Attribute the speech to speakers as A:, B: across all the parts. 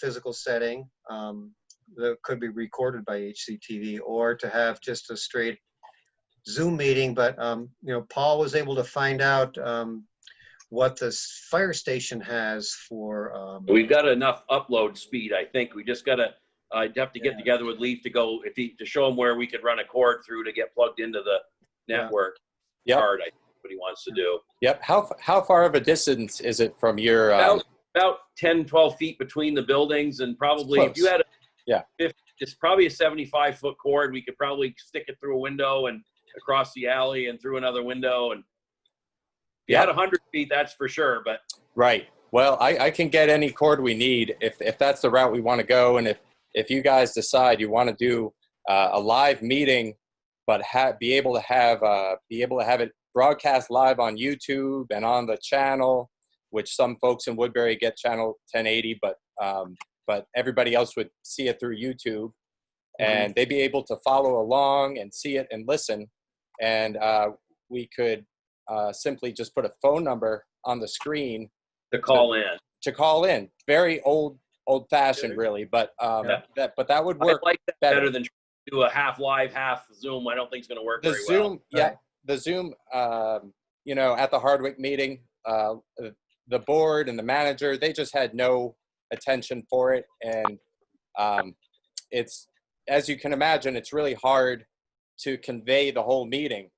A: physical setting um, that could be recorded by HCTV or to have just a straight Zoom meeting. But, um, you know, Paul was able to find out um, what the s- fire station has for. um,
B: We've got enough upload speed, I think. We just gotta, I'd have to
A: Yeah.
B: get together with Leaf to go, if he, to show him where we could run a cord through to get plugged into the
A: Yeah.
B: network.
C: Yep.
B: card, I think What he wants to do.
C: Yep. How f- how far of a distance is it from your? Um,
B: About, about 10, 12 feet between the buildings and probably, if you
C: Close.
B: had a.
C: Yeah.
B: 50 It's probably a seventy-five foot cord. We could probably stick it through a window and across the alley and through another window and. If you had
C: Yep.
B: a hundred feet, that's for sure, but
C: right. Well, I, I can get any cord we need if if that's the route we want to go, and if if you guys decide you want to do uh, a live meeting, but ha- be able to have uh, be able to have it broadcast live on YouTube and on the channel, which some folks in Woodbury get channel 1080, but um, but everybody else would see it through YouTube, and they'd be able to follow along and see it and listen, and uh, we could uh, simply just put a phone number on the screen
B: to call in.
C: to call in. Very old old fashioned, really, but um,
B: Yeah.
C: that but that would
B: I
C: work.
B: like that
C: better.
B: better than trying to do a half live, half Zoom. I don't think it's going to work
C: the
B: very
C: Zoom,
B: well.
C: yeah, the Zoom. Um, you know, at the Hardwick meeting, uh, the board and the manager they just had no attention for it, and um, it's as you can imagine, it's really hard to convey the whole meeting.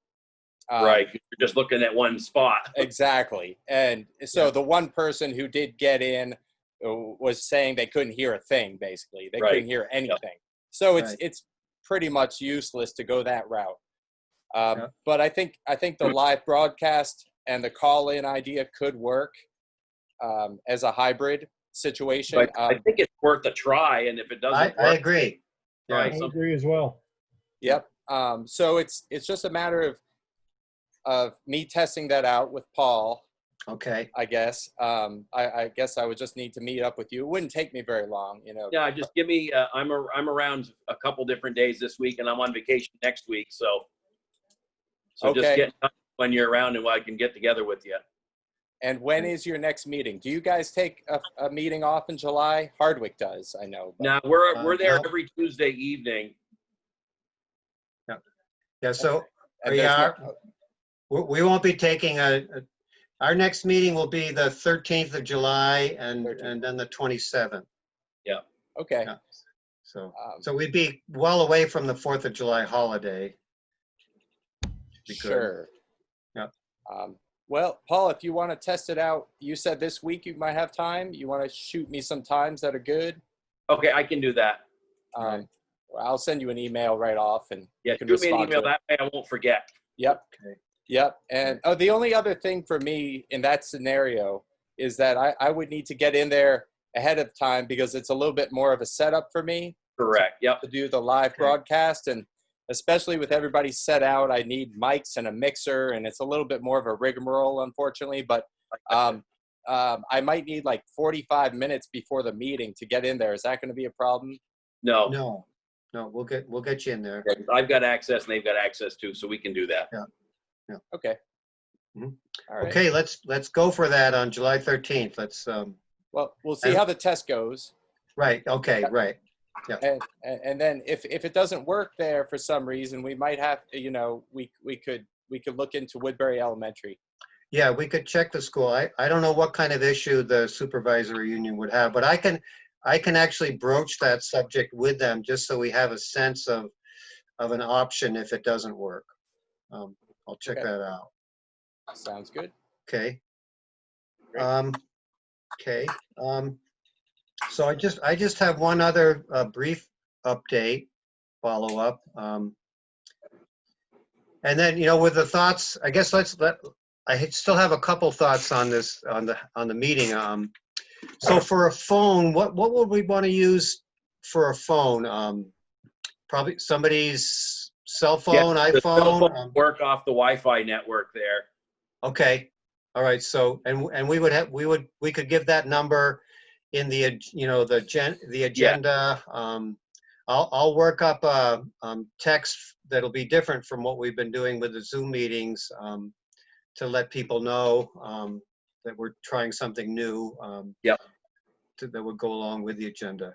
C: Um,
B: right. You're just looking at one spot.
C: Exactly. And so
A: Yeah.
C: the one person who did get in uh, was saying they couldn't hear a thing basically. They
B: Right.
C: couldn't hear anything. So it's
A: Right.
C: it's pretty much useless to go that route. Um,
A: Yeah.
C: but I think I think the live broadcast and the call in idea could work um, as a hybrid situation.
B: But I
C: Um,
B: think it's worth a try. And if it doesn't
A: I,
B: work,
A: I agree. Yeah.
B: try
D: I
B: something.
D: agree as well.
C: Yep. Um, so it's it's just a matter of of me testing that out with Paul
A: Okay.
C: I guess. Um, I, I guess I would just need to meet up with you. It wouldn't take me very long, you know.
B: Yeah, just give me. Uh, I'm a, I'm around a couple different days this week, and I'm on vacation next week. So, so just
C: Okay.
B: get in touch when you're around, and I can get together with you.
C: And when
A: Mm.
C: is your next meeting? Do you guys take a, a meeting off in July? Hardwick does, I know. but-
B: Now we're
A: Uh,
B: we're there
A: no.
B: every Tuesday evening.
A: Yeah, so
C: and
A: we
C: there's no-
A: we we won't be taking a, a- our next meeting will be the 13th of July and,
C: 13th.
A: and then the 27th.
C: oh, Okay.
A: Yeah. So,
C: Um,
A: so we'd be well away from the 4th of July holiday. be good.
C: sure.
A: Yeah.
C: Um, well, Paul, if you want to test it out, you said this week you might have time. You want to shoot me some times that are good.
B: Okay, I can do that.
C: Um,
A: Right.
C: I'll send you an email right off and
B: Yeah,
C: you can
B: shoot me an
C: respond to
B: email
C: it.
B: that way. I won't forget.
C: Yep.
A: Okay.
C: Yep. And oh, the only other thing for me in that scenario is that I, I would need to get in there ahead of time because it's a little bit more of a setup for me
B: Correct. Yep.
C: to do the live
A: Okay.
C: broadcast. And especially with everybody set out, I need mics and a mixer, and it's a little bit more of a rigmarole, unfortunately. But um, um, I might need like 45 minutes before the meeting to get in there. Is that going to be a problem?
B: No,
A: No, no, we'll get, we'll get you in there.
B: I've got access, and they've got access too, so we can do that.
C: Okay.
A: Mhm.
C: All right.
A: Okay, let's, let's go for that on July 13th. Let's, um,
C: Well, we'll see
A: And-
C: how the test goes.
A: right, okay,
C: Yeah.
A: right.
C: and and and then if if it doesn't work there for some reason we might have you know we we could we could look into woodbury elementary
A: Yeah, we could check the school. I, I don't know what kind of issue the supervisory union would have, but I can, I can actually broach that subject with them just so we have a sense of, of an option if it doesn't work. Um, I'll check
C: Okay.
A: that out.
C: sounds good
A: Okay.
C: Great.
A: Um, okay, um, so I just, I just have one other, uh, brief update, follow-up. Um, and then, you know, with the thoughts, I guess let's, let, I had- still have a couple thoughts on this, on the, on the meeting. Um, so for a phone, what, what would we want to use for a phone? Um, probably somebody's cell phone,
B: The cell
A: iPhone?
B: phone
A: um,
B: Work off the Wi-Fi network there.
A: Okay, all right, so, and, and we would have, we would, we could give that number in the, ag- you know, the gen, the agenda. Um, I'll, I'll work up a, um, text that'll be different from what we've been doing with the Zoom meetings, um, to let people know, um, that we're trying something new. um,
B: Yep.
A: that would go along with the agenda.